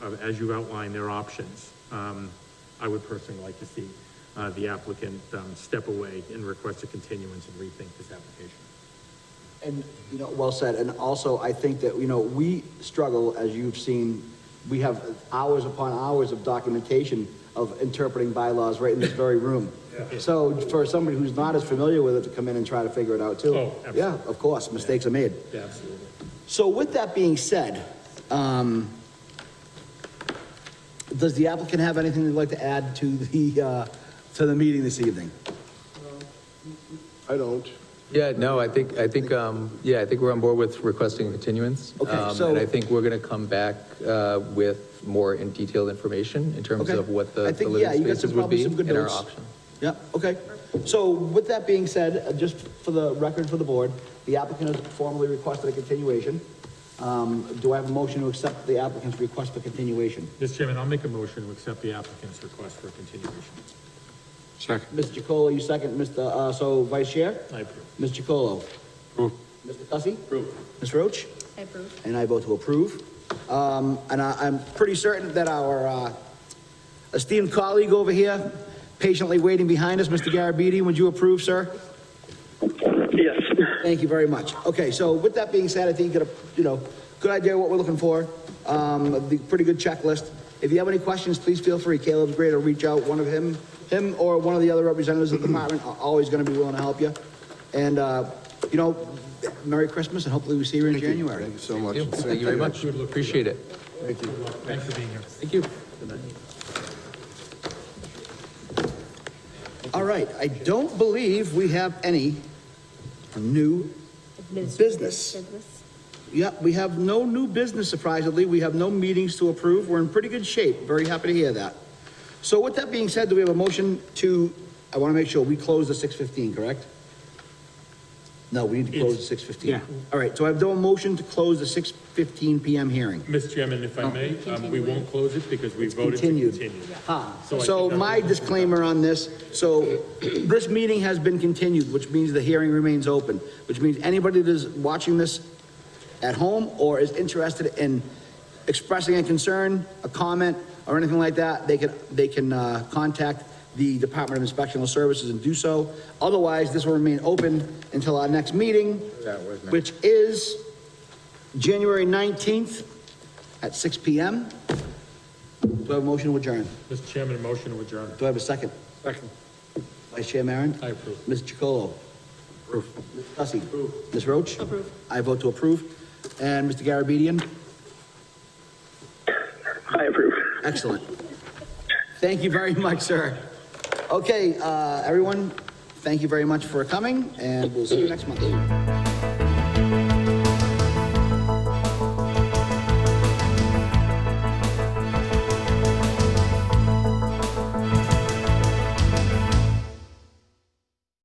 uh, as you outline their options, um, I would personally like to see, uh, the applicant, um, step away and request a continuance and rethink this application. And, you know, well said, and also, I think that, you know, we struggle, as you've seen, we have hours upon hours of documentation of interpreting bylaws right in this very room. So for somebody who's not as familiar with it to come in and try to figure it out too. Oh, absolutely. Yeah, of course, mistakes are made. Absolutely. So with that being said, um, does the applicant have anything they'd like to add to the, uh, to the meeting this evening? I don't. Yeah, no, I think, I think, um, yeah, I think we're on board with requesting a continuance. Okay, Um, so- And I think we're going to come back uh, with more in detailed information in terms Okay. of what I the the think, yeah, living you got spaces some- would probably be some good and our notes. options. Yeah, okay. So with that being said, uh, just for the record for the board, the applicant has formally requested a continuation. Um, do I have a motion to accept the applicant's request for continuation? Mr. Chairman, I'll make a motion to accept the applicant's request for a continuation. Second. Mr. Chacolo, you second, Mr., uh, so Vice Chair? I approve. Mr. Chacolo? Approve. Mr. Cussy? Approve. Ms. Roach? I approve. And I vote to approve. Um, and I, I'm pretty certain that our, uh, esteemed colleague over here, patiently waiting behind us, Mr. Garabedian, would you approve, sir? Yes. Thank you very much. Okay, so with that being said, I think you got a, you know, good idea what we're looking for, um, the pretty good checklist. If you have any questions, please feel free, Caleb's great, or reach out, one of him, him or one of the other representatives of the department are always gonna be willing to help you. And, uh, you know, Merry Christmas, and hopefully we see you in January. Thank you so much. Thank you. Thank you very much. Appreciate it. Thank you. Thanks for being here. Thank you. All right, I don't believe we have any new Administrative Business. Business. Yeah, we have no new business surprisingly. We have no meetings to approve. We're in pretty good shape. Very happy to hear that. So with that being said, do we have a motion to, I want to make sure we close the six fifteen, correct? No, we need to close the six fifteen. yeah. All right, so I've done a motion to close the six fifteen PM hearing. Mr. Chairman, if I may, um, we won't close it because we voted to continued. continue. Ah, So I So think that- my disclaimer on this, so this meeting has been continued, which means the hearing remains open, which means anybody that is watching this at home or is interested in expressing a concern, a comment, or anything like that, they can, they can, uh, contact the Department of Inspectional Services and do so. Otherwise, this will remain open until our next meeting, which is January nineteenth at six P M. Do I have a motion to adjourn? Mr. Chairman, a motion to adjourn. Do I have a second? Second. Vice Chair Maron? I approve. Ms. Chacolo? Approve. Ms. Cussy? Approve. Ms. Roach? Approve. I vote to approve. And Mr. Garabedian? I approve. Excellent. Thank you very much, sir. Okay, uh, everyone, thank you very much for coming, and we'll see you next month.